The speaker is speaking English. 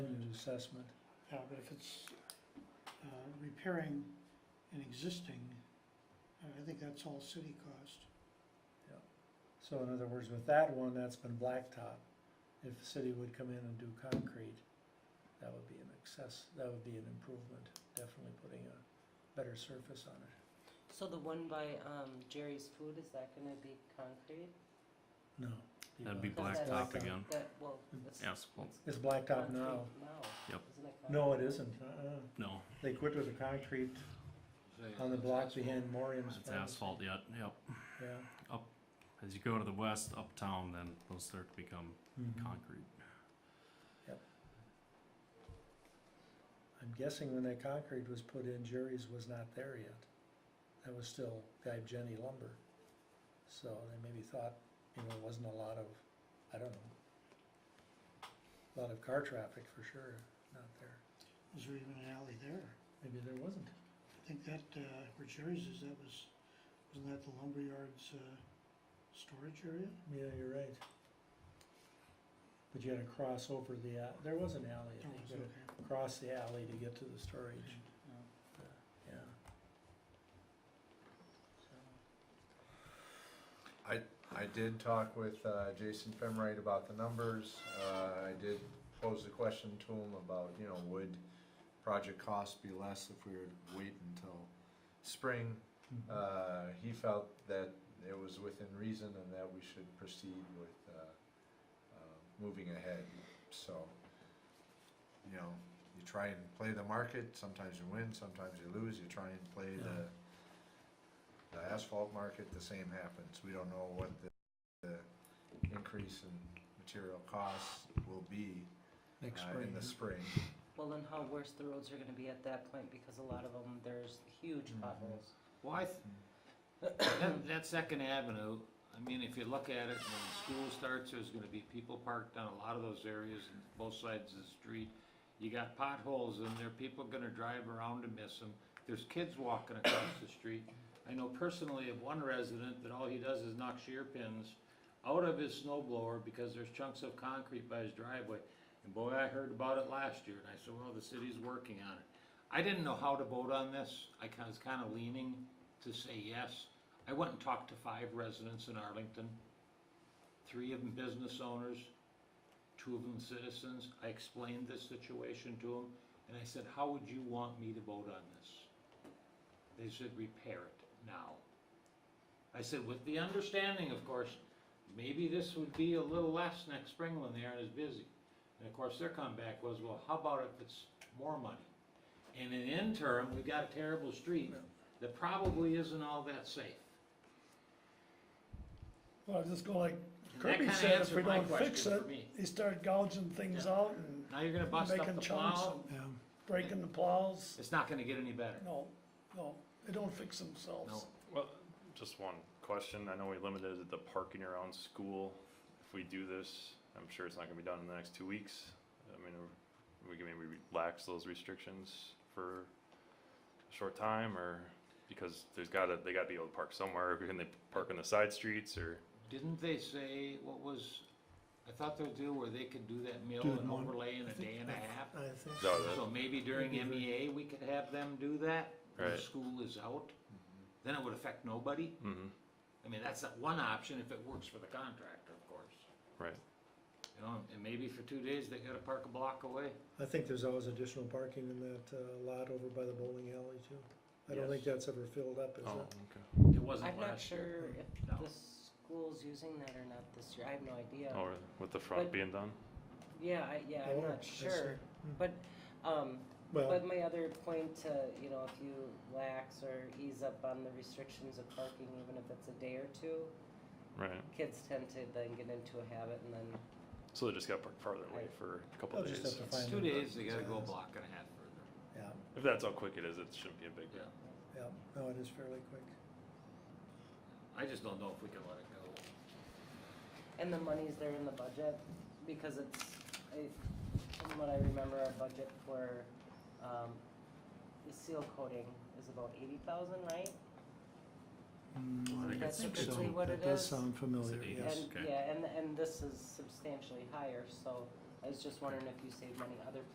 assessment. Yeah, but if it's uh, repairing an existing, uh, I think that's all city cost. So in other words, with that one, that's been blacktop. If the city would come in and do concrete, that would be an excess, that would be an improvement, definitely putting a better surface on it. So the one by um, Jerry's Food, is that gonna be concrete? No. That'd be Because blacktop that's- Hmm. again. That, well, that's. Asphalt, It's it's blacktop concrete now. Yep. Isn't it No, it isn't. Uh-uh. no, They quit with the concrete on the block behind Morium's. it's Farms. asphalt yet, yep. Yeah. As you go to the west, uptown, then those start to become Mhm. concrete. I'm guessing when that concrete was put in, Jerry's was not there yet. That was still Guy Jenny lumber. So they maybe thought, you know, it wasn't a lot of, I don't know, a lot of car traffic for sure, not there. Was there even an alley there? Maybe there wasn't. I think that, uh, where Jerry's is, that was, wasn't that the lumberyard's uh, storage area? Yeah, you're right. But you had to cross over the, a- there was an alley, I That think, was you had okay. to cross the alley to get to the storage, yeah. I did talk with uh, Jason Femright about the numbers. Uh, I did pose the question to him about, you know, would project cost be less if we were to wait until spring? Mm-hmm. Uh, He felt that it was within reason and that we should proceed with uh, uh, moving ahead. So, you know, you try and play the market, sometimes you win, sometimes you lose. You try and play the the asphalt market, the same happens. We don't know what the, the increase in material costs will be Next uh, spring. in the spring. Well, and how worse the roads are gonna be at that point, because a lot of them, there's huge Mm-hmm. Mhm. potholes. Well, I, th- that, that Second Avenue, I mean, if you look at it, when school starts, there's gonna be people parked on a lot of those areas, and both sides of the street. You got potholes in there, people gonna drive around to miss them, there's kids walking across the street. I know personally of one resident that all he does is knock shear pins out of his snow blower because there's chunks of concrete by his driveway. And boy, I heard about it last year, and I said, well, the city's working on it. I didn't know how to vote on this, I ca- was kinda leaning to say yes. I went and talked to five residents in Arlington, three of them business owners, two of them citizens. I explained this situation to them, and I said, how would you want me to vote on this? They said, repair it now. I said, with the understanding, of course, maybe this would be a little less next spring when they aren't as busy. And of course, their comeback was, well, how about if it's more money? And in interim, we've got a terrible street that probably isn't all that safe. Well, I was just going like And that Kirby kinda said, if answered we my don't fix question it, for me. they start gouging things out and Now you're gonna bust up making the chunks plow, and breaking the plows. it's not gonna get any better, No, no, they don't fix themselves. no. Well, just one question. I know we limited the parking around school. If we do this, I'm sure it's not gonna be done in the next two weeks. I mean, are we can maybe relax those restrictions for a short time or because there's gotta, they gotta be able to park somewhere. Can they park on the side streets or? Didn't they say, what was, I thought their deal where they could do that mill Do it and in one- overlay in a day and a half? I think. Is that what it is? So maybe during MEA, we could have them do that, when Right. school is out? Mm-hmm. Then it would affect nobody? Mhm, I mean, that's that one option if it works for the contractor, of course. right. You know, and maybe for two days, they gotta park a block away. I think there's always additional parking in that uh, lot over by the bowling alley too. I don't think that's ever filled up, is Oh, it? okay. It wasn't I'm not last year. sure if No. the school's using that or not this year, I have no idea. Oh, really? with the front But- being done? Yeah, I, yeah, I'm Oh, not I see. sure, Hmm. but, um, Well, But my other point to, you know, if you lax or ease up on the restrictions of parking, even if it's a day or two, Right. kids tend to then get into a habit and then, So they just gotta park farther away for a couple They'll days. just have to It's find two them. days, they gotta go a block and a half further. yeah, If that's how quick it is, it shouldn't be a big deal. Yeah. yeah, no, it is fairly quick. I just don't know if we can let it go. and the money's there in the budget because it's, I, from what I remember, our budget for, um, the seal coating is about eighty thousand, right? Mm, I think That's it's- it's- typically what it That does is. sound familiar, Is it yes. And, okay. yeah, and, and this is substantially higher, so I was just wondering if you save money other